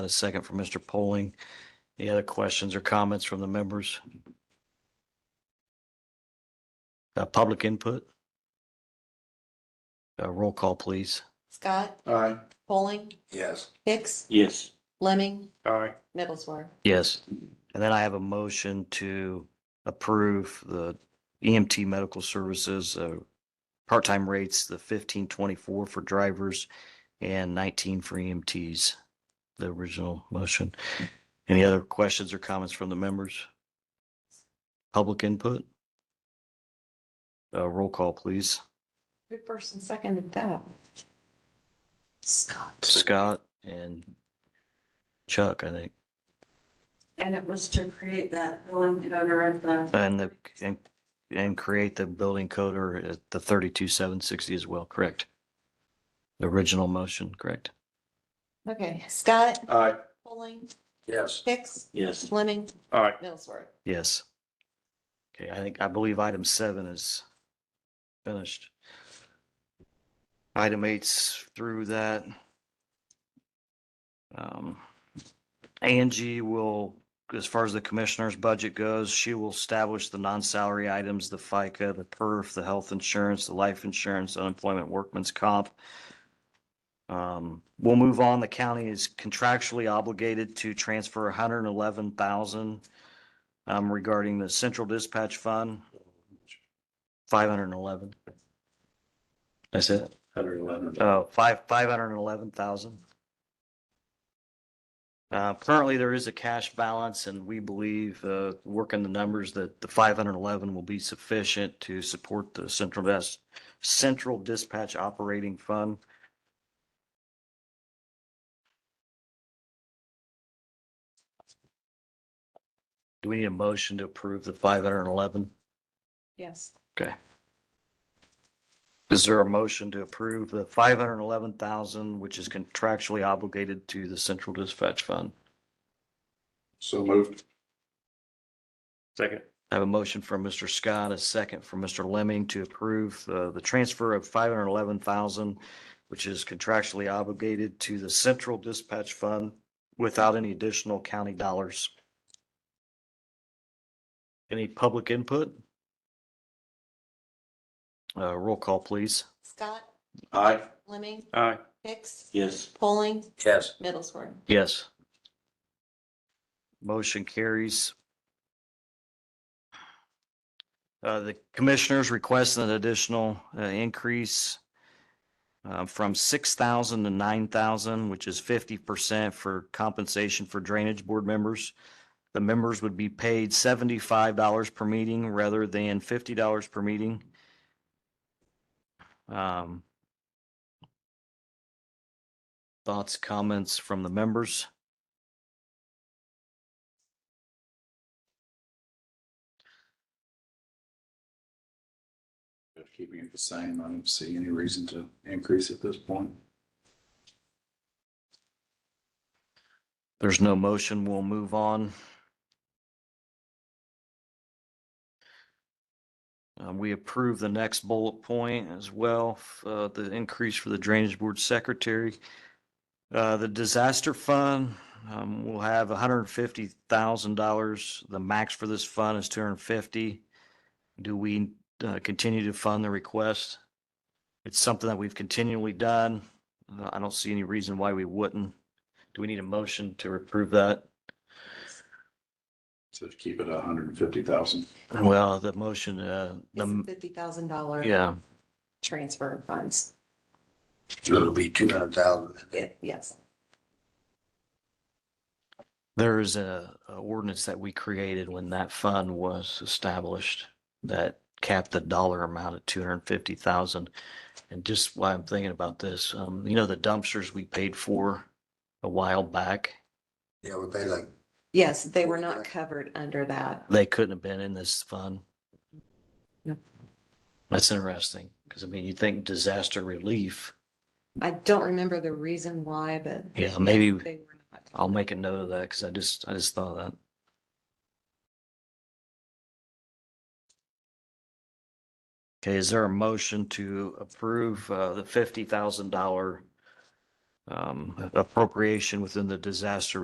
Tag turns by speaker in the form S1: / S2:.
S1: A second from Mr. Poling. Any other questions or comments from the members? Uh, public input? Uh, roll call, please.
S2: Scott,
S3: Aye.
S2: Polling,
S3: Yes.
S2: Hicks,
S4: Yes.
S2: Lemming,
S3: Aye.
S2: Middlesworth.
S1: Yes. And then I have a motion to approve the EMT medical services, uh, part-time rates, the fifteen twenty-four for drivers and nineteen for EMTs, the original motion. Any other questions or comments from the members? Public input? Uh, roll call, please.
S2: Who first and seconded that? Scott.
S1: Scott and Chuck, I think,
S2: And it was to create that one owner of the.
S1: and the, and, and create the building code or at the thirty-two seven sixty as well, correct? The original motion, correct?
S2: Okay, Scott,
S3: Aye.
S2: Polling,
S3: Yes.
S2: Hicks,
S4: Yes.
S2: Lemming,
S3: Aye.
S2: Middlesworth.
S1: Yes. Okay, I think, I believe item seven is finished. Item eight's through that. Um, Angie will, as far as the commissioner's budget goes, she will establish the non-salary items, the FICA, the perf, the health insurance, the life insurance, unemployment, workman's comp. Um, we'll move on. The county is contractually obligated to transfer hundred and eleven thousand um, regarding the central dispatch fund, five hundred and eleven. That's it?
S3: Hundred eleven.
S1: Oh, five, five hundred and eleven thousand. Uh, currently there is a cash balance and we believe, uh, working the numbers that the five hundred and eleven will be sufficient to support the central desk, central dispatch operating fund. Do we need a motion to approve the five hundred and eleven?
S2: Yes.
S1: Is there a motion to approve the five hundred and eleven thousand, which is contractually obligated to the central dispatch fund?
S3: So moved. Second.
S1: I have a motion from Mr. Scott, a second from Mr. Lemming to approve uh, the transfer of five hundred and eleven thousand, which is contractually obligated to the central dispatch fund without any additional county dollars. Any public input? Uh, roll call, please.
S2: Scott,
S3: Aye.
S2: Lemming,
S3: Aye.
S2: Hicks,
S4: Yes.
S2: Polling,
S3: Yes.
S2: Middlesworth.
S1: Yes. Motion carries. Uh, the commissioners request an additional uh, increase uh, from six thousand to nine thousand, which is fifty percent for compensation for drainage board members. The members would be paid seventy-five dollars per meeting rather than fifty dollars per meeting. Um, Thoughts, comments from the members?
S3: Keeping it the same, I don't see any reason to increase at this point.
S1: There's no motion. We'll move on. Uh, we approve the next bullet point as well, f- uh, the increase for the Drainage Board Secretary. Uh, the disaster fund, um, will have hundred and fifty thousand dollars. The max for this fund is two hundred and fifty. Do we, uh, continue to fund the request? It's something that we've continually done. Uh, I don't see any reason why we wouldn't. Do we need a motion to approve that?
S3: So to keep it a hundred and fifty thousand.
S1: Well, the motion, uh, the,
S2: Fifty thousand dollar
S1: yeah,
S2: transfer of funds.
S3: It'll be two hundred thousand.
S2: Ye- Yes.
S1: there is a, a ordinance that we created when that fund was established that capped the dollar amount at two hundred and fifty thousand. And just why I'm thinking about this, um, you know, the dumpsters we paid for a while back,
S3: Yeah, we pay like.
S2: Yes, they were not covered under that.
S1: they couldn't have been in this fund.
S2: No.
S1: That's interesting, because I mean, you think disaster relief,
S2: I don't remember the reason why, but.
S1: Yeah, maybe-
S2: They were not.
S1: I'll make a note of that because I just, I just thought of that. Okay, is there a motion to approve uh, the fifty thousand dollar um, appropriation within the disaster